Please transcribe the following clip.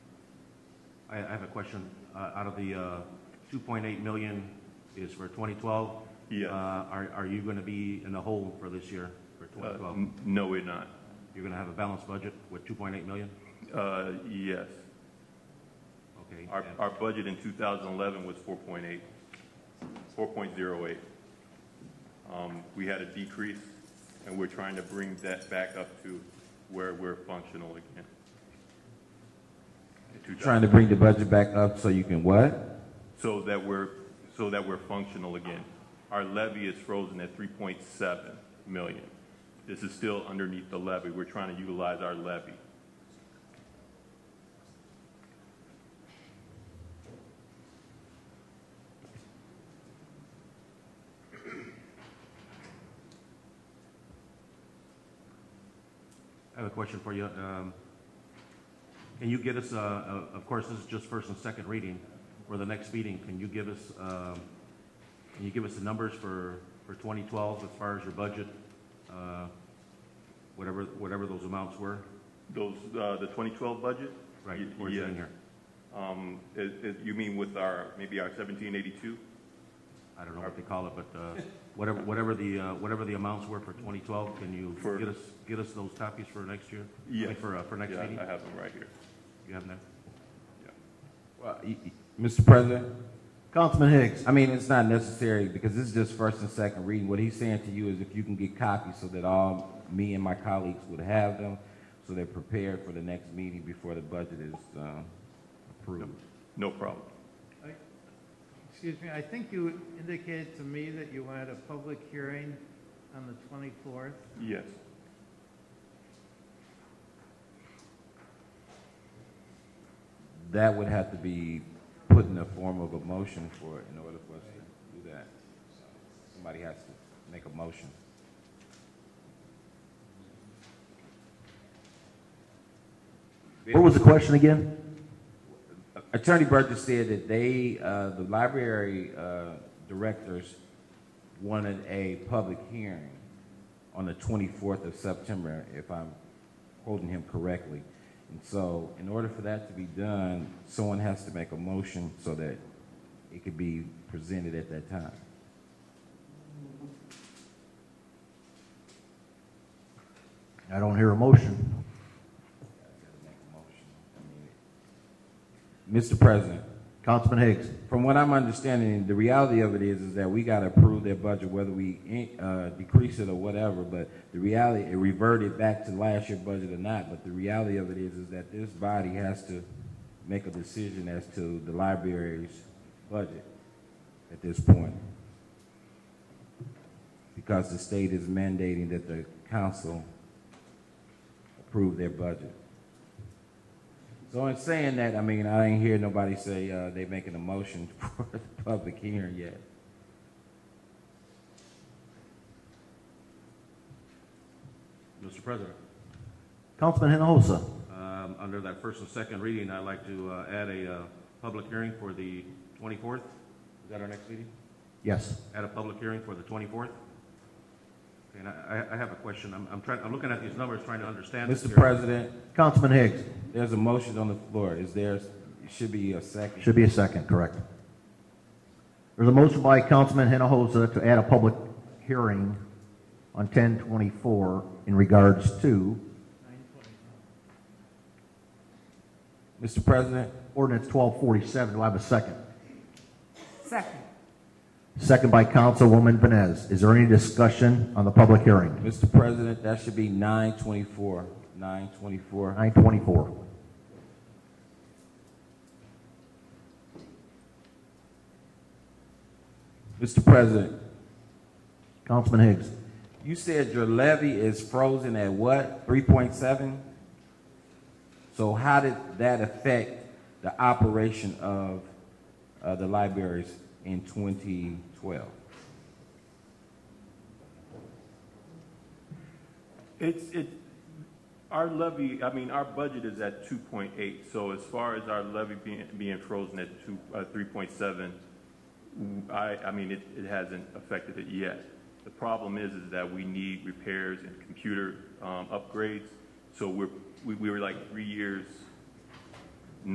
I, I have a question. Uh, out of the, uh, two point eight million is for twenty twelve? Yes. Uh, are, are you gonna be in the hole for this year, for twenty Uh, twelve? n- No, we're not. You're gonna have a balanced budget with two point eight million? Uh, Yes. Okay. Our, and- our budget in 2011 was 4.8, 4.08. Um, We had a decrease, and we're trying to bring that back up to where we're functional again. In 2000 Trying to bring the budget back up so you can what? So that we're, so that we're functional again. Our levy is frozen at 3.7 million. This is still underneath the levy. We're trying to utilize our levy. I have a question for you. Um, Can you get us, uh, uh, of course, this is just first and second reading, for the next meeting, can you give us, um, can you give us the numbers for, for 2012 as far as your budget, uh, whatever, whatever those amounts were? Those, uh, the 2012 budget? Right, Y- where it's in yeah. here. Um, is, is, you mean with our, maybe our 1782? I don't know what they call it, but uh, whatever, whatever the, uh, whatever the amounts were for 2012, can you For- get us, get us those copies for next year? I Yeah. mean, For, uh, for next Yeah, meeting? I have them right here. You have that? Well, y- y- Mr. President? Councilman Hicks. I mean, it's not necessary because this is just first and second reading. What he's saying to you is if you can get copies so that all, me and my colleagues would have them, so they're prepared for the next meeting before the budget is, um, approved. No problem. Excuse me, I think you indicated to me that you wanted a public hearing on the 24th. Yes. That would have to be put in the form of a motion for, in order for us to do that. So, Somebody has to make a motion. What was the question again? Attorney Burgess said that they, uh, the library uh, directors wanted a public hearing on the 24th of September, if I'm quoting him correctly. And so, in order for that to be done, someone has to make a motion so that it could be presented at that time. I don't hear a motion. Mr. President, Councilman Higgs, From what I'm understanding, the reality of it is, is that we gotta approve their budget, whether we, in- uh, decrease it or whatever, but the reality, it reverted back to last year's budget or not, but the reality of it is, is that this body has to make a decision as to the library's budget at this point. Because the state is mandating that the council approve their budget. So in saying that, I mean, I ain't hear nobody say, uh, they making a motion for the public hearing yet. Mr. President? Councilman Hinojosa, Um, Under that first and second reading, I'd like to uh, add a uh, public hearing for the 24th. Is that our next meeting? yes. Add a public hearing for the 24th? Okay, And I I- I have a question. I'm- I'm trying, I'm looking at these numbers, trying to understand. this Mr. here. President, Councilman Higgs, there's a motion on the floor. Is there, should be a second. should be a second, correct. There's a motion by Councilman Hinojosa to add a public hearing on 1024 in regards to Mr. President, ordinance 1247. Do I have a second? Second. Second by Councilwoman Vines. Is there any discussion on the public hearing? Mr. President, that should be nine twenty-four, nine twenty-four. 924. Mr. President, Councilman Higgs, you said your levy is frozen at what, three point seven? So how did that affect the operation of, uh, the libraries in twenty twelve? It's, it, our levy, I mean, our budget is at 2.8, so as far as our levy being, being frozen at 2, uh, 3.7, mm, I, I mean, it, it hasn't affected it yet. The problem is, is that we need repairs and computer um, upgrades, so we're, we, we were like three years